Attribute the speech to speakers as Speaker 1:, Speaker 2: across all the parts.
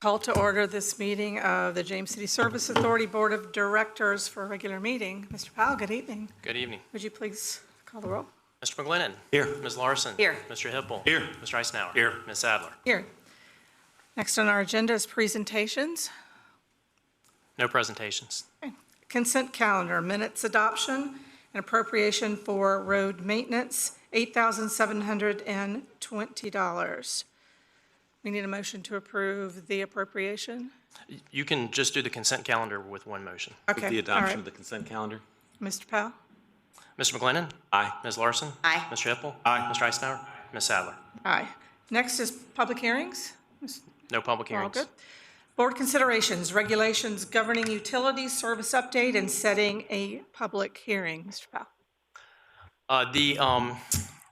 Speaker 1: Call to order this meeting of the James City Service Authority Board of Directors for a regular meeting. Mr. Powell, good evening.
Speaker 2: Good evening.
Speaker 1: Would you please call the roll?
Speaker 2: Mr. McGlinnan.
Speaker 3: Here.
Speaker 2: Ms. Larson.
Speaker 4: Here.
Speaker 2: Mr. Hippel.
Speaker 3: Here.
Speaker 2: Mr. Eisenhower.
Speaker 3: Here.
Speaker 2: Ms. Sadler.
Speaker 1: Here. Next on our agenda is presentations.
Speaker 2: No presentations.
Speaker 1: Consent calendar, minutes adoption, and appropriation for road maintenance, $8,720. We need a motion to approve the appropriation?
Speaker 2: You can just do the consent calendar with one motion.
Speaker 1: Okay.
Speaker 3: The
Speaker 1: all
Speaker 3: adoption
Speaker 1: right.
Speaker 3: of the consent calendar?
Speaker 1: Mr. Powell?
Speaker 2: Mr. McGlinnan.
Speaker 3: Aye.
Speaker 2: Ms. Larson.
Speaker 4: Aye.
Speaker 2: Mr. Hippel.
Speaker 3: Aye.
Speaker 2: Mr. Eisenhower. Ms. Sadler.
Speaker 1: Aye. Next is public hearings.
Speaker 2: No public
Speaker 1: We're all
Speaker 2: hearings.
Speaker 1: good. Board considerations, regulations governing utilities, service update, and setting a public hearing. Mr. Powell.
Speaker 2: Uh, The, um,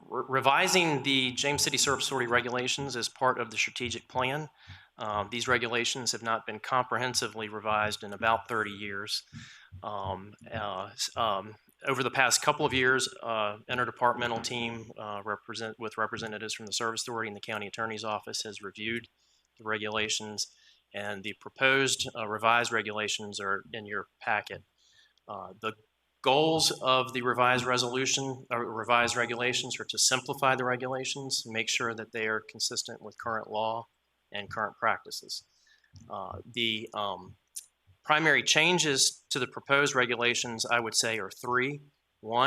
Speaker 2: re- revising the James City Service Authority regulations is part of the strategic plan. Uh, These regulations have not been comprehensively revised in about 30 years. Um, uh, s- um, Over the past couple of years, uh, interdepartmental team uh, represent, with representatives from the Service Authority and the County Attorney's Office has reviewed the regulations, and the proposed uh, revised regulations are in your packet. Uh, The goals of the revised resolution, or revised regulations, are to simplify the regulations, make sure that they are consistent with current law and current practices. Uh, The um, primary changes to the proposed regulations, I would say, are three. One,